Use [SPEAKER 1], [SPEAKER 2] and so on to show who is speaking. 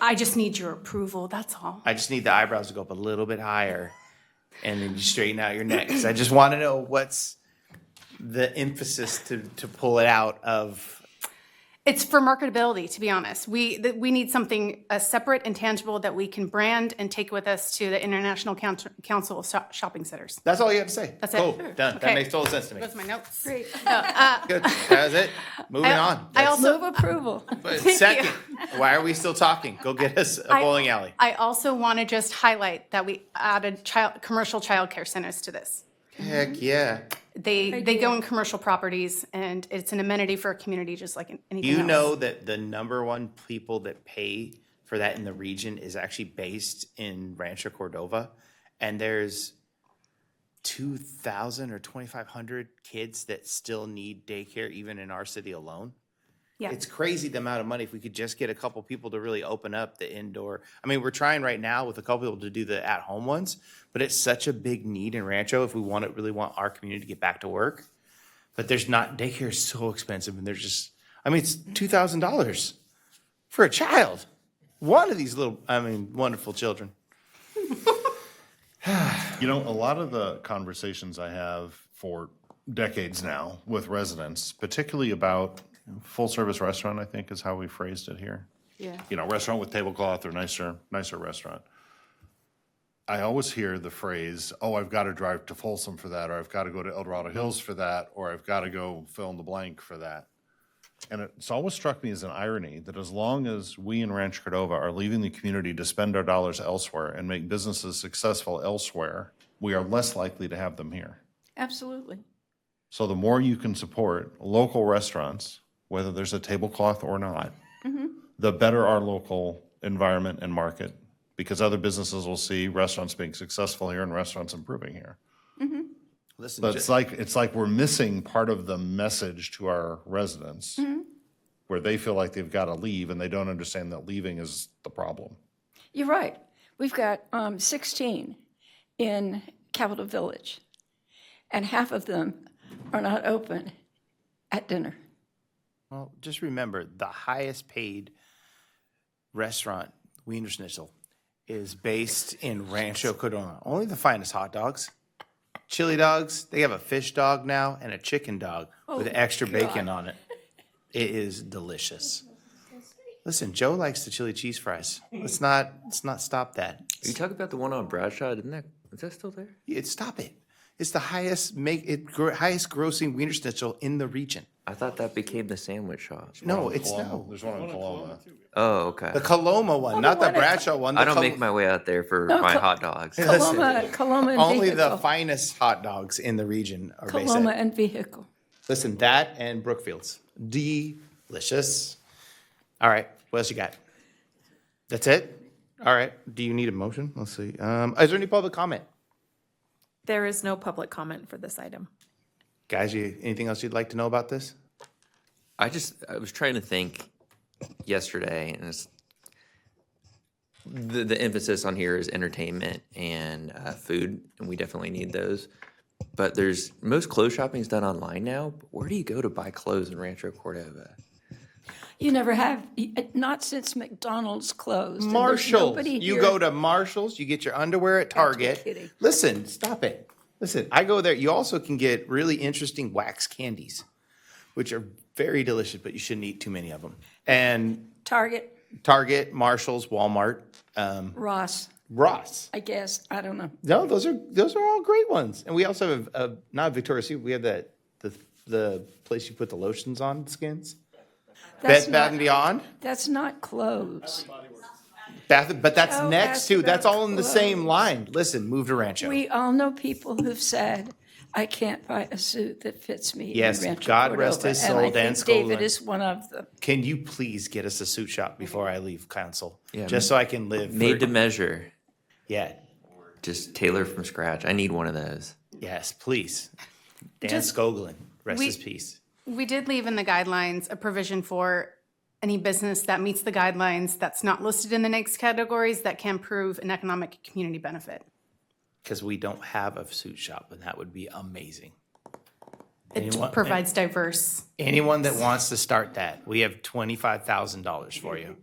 [SPEAKER 1] I just need your approval, that's all.
[SPEAKER 2] I just need the eyebrows to go up a little bit higher, and then you straighten out your neck. 'Cause I just want to know what's the emphasis to to pull it out of.
[SPEAKER 1] It's for marketability, to be honest. We, th- we need something uh, separate and tangible that we can brand and take with us to the International Count- Council of Shop- Shopping Centers.
[SPEAKER 2] That's all you have to say. That's
[SPEAKER 1] it.
[SPEAKER 2] cool.
[SPEAKER 1] Sure.
[SPEAKER 2] Done.
[SPEAKER 1] Okay.
[SPEAKER 2] That makes total sense to me.
[SPEAKER 1] Those are my notes. Great.
[SPEAKER 2] Good. That was it. Moving on.
[SPEAKER 1] I
[SPEAKER 2] That's-
[SPEAKER 1] also.
[SPEAKER 3] Move approval.
[SPEAKER 2] but second, why are we still talking? Go get us a bowling alley.
[SPEAKER 1] I also want to just highlight that we added child, commercial childcare centers to this.
[SPEAKER 2] Heck yeah.
[SPEAKER 1] They, they go in commercial properties, and it's an amenity for a community, just like anything else.
[SPEAKER 2] You know that the number one people that pay for that in the region is actually based in Rancho Cordova, and there's two thousand or twenty five hundred kids that still need daycare, even in our city alone.
[SPEAKER 1] Yeah.
[SPEAKER 2] It's crazy the amount of money. If we could just get a couple people to really open up the indoor, I mean, we're trying right now with a couple people to do the at home ones, but it's such a big need in Rancho if we want it, really want our community to get back to work. But there's not daycare is so expensive, and there's just, I mean, it's two thousand dollars for a child. One of these little, I mean, wonderful children.
[SPEAKER 4] You know, a lot of the conversations I have for decades now with residents, particularly about full service restaurant, I think is how we phrased it here. Yeah. You know, restaurant with tablecloth or nicer, nicer restaurant. I always hear the phrase, oh, I've got to drive to Folsom for that, or I've got to go to El Dorado Hills for that, or I've got to go fill in the blank for that. And it's always struck me as an irony that as long as we in Rancho Cordova are leaving the community to spend our dollars elsewhere and make businesses successful elsewhere, we are less likely to have them here.
[SPEAKER 3] Absolutely.
[SPEAKER 4] So the more you can support local restaurants, whether there's a tablecloth or not, the better our local environment and market, because other businesses will see restaurants being successful here and restaurants improving here.
[SPEAKER 2] Listen,
[SPEAKER 4] But
[SPEAKER 2] ju-
[SPEAKER 4] it's like, it's like we're missing part of the message to our residents, where they feel like they've got to leave and they don't understand that leaving is the problem.
[SPEAKER 3] You're right. We've got um, 16 in Capitol Village, and half of them are not open at dinner.
[SPEAKER 2] Well, just remember the highest paid restaurant, Wiener Schnitzel, is based in Rancho Cordova. Only the finest hot dogs, chili dogs. They have a fish dog now and a chicken dog with extra bacon on it. It is delicious. Listen, Joe likes the chili cheese fries. Let's not let's not stop that.
[SPEAKER 5] Are you talking about the one on Bradshaw? Didn't that is that still there?
[SPEAKER 2] It, stop it. It's the highest make it gr- highest grossing Wiener Schnitzel in the region.
[SPEAKER 5] I thought that became the sandwich shop.
[SPEAKER 2] No, it's
[SPEAKER 4] Paloma-
[SPEAKER 2] no.
[SPEAKER 4] There's one in Paloma.
[SPEAKER 5] Oh, okay.
[SPEAKER 2] The Coloma one, not the Bradshaw one. The
[SPEAKER 5] I don't make
[SPEAKER 2] Col-
[SPEAKER 5] my way out there for my hot dogs.
[SPEAKER 3] Coloma, Coloma and
[SPEAKER 2] Only
[SPEAKER 3] vehicle.
[SPEAKER 2] the finest hot dogs in the region are based
[SPEAKER 3] Coloma
[SPEAKER 2] at.
[SPEAKER 3] and vehicle.
[SPEAKER 2] Listen, that and Brookfield's. Delicious. All right, what else you got? That's it? All right, do you need a motion? Let's see. Um, is there any public comment?
[SPEAKER 6] There is no public comment for this item.
[SPEAKER 2] Guys, you, anything else you'd like to know about this?
[SPEAKER 5] I just I was trying to think yesterday, and it's the the emphasis on here is entertainment and uh, food, and we definitely need those. But there's most clothes shopping is done online now. But where do you go to buy clothes in Rancho Cordova?
[SPEAKER 3] You never have, uh, not since McDonald's closed. and there's
[SPEAKER 2] Marshalls.
[SPEAKER 3] nobody
[SPEAKER 2] You
[SPEAKER 3] here.
[SPEAKER 2] go to Marshalls, you get your underwear at Target.
[SPEAKER 3] kidding.
[SPEAKER 2] Listen, stop it. Listen, I go there. You also can get really interesting wax candies, which are very delicious, but you shouldn't eat too many of them. And
[SPEAKER 3] Target,
[SPEAKER 2] Target, Marshalls, Walmart, um,
[SPEAKER 3] Ross,
[SPEAKER 2] Ross.
[SPEAKER 3] I guess, I don't know.
[SPEAKER 2] No, those are those are all great ones. And we also have uh, not Victoria's Secret. We have that the the place you put the lotions on skins.
[SPEAKER 3] That's
[SPEAKER 2] Bed Bath and
[SPEAKER 3] not-
[SPEAKER 2] Beyond.
[SPEAKER 3] That's not closed.
[SPEAKER 2] Bath, but that's
[SPEAKER 3] Joe
[SPEAKER 2] next
[SPEAKER 3] asked
[SPEAKER 2] to. That's
[SPEAKER 3] about
[SPEAKER 2] all in the same line. Listen, move to Rancho.
[SPEAKER 3] We all know people who''ve said, I can't buy a suit that fits me. in
[SPEAKER 2] Yes,
[SPEAKER 3] Rancho
[SPEAKER 2] God rest his
[SPEAKER 3] Cordova,"
[SPEAKER 2] soul, Dan
[SPEAKER 3] And I think David
[SPEAKER 2] Skolnik.
[SPEAKER 3] is one of them.
[SPEAKER 2] Can you please get us a suit shop before I leave council?
[SPEAKER 5] Yeah,
[SPEAKER 2] just so I can live.
[SPEAKER 5] Made
[SPEAKER 2] for,
[SPEAKER 5] to measure,
[SPEAKER 2] yeah,
[SPEAKER 5] just tailor from scratch. I need one of those.
[SPEAKER 2] yes, please. Dan
[SPEAKER 1] Just-
[SPEAKER 2] Skoglin, rest
[SPEAKER 1] we-
[SPEAKER 2] his peace.
[SPEAKER 1] We did leave in the guidelines a provision for any business that meets the guidelines that's not listed in the next categories that can prove an economic community benefit.
[SPEAKER 2] Because we don't have a suit shop, and that would be amazing.
[SPEAKER 1] It
[SPEAKER 2] Anyone-
[SPEAKER 1] provides diverse.
[SPEAKER 2] Anyone that wants to start that, we have twenty-five thousand dollars for you.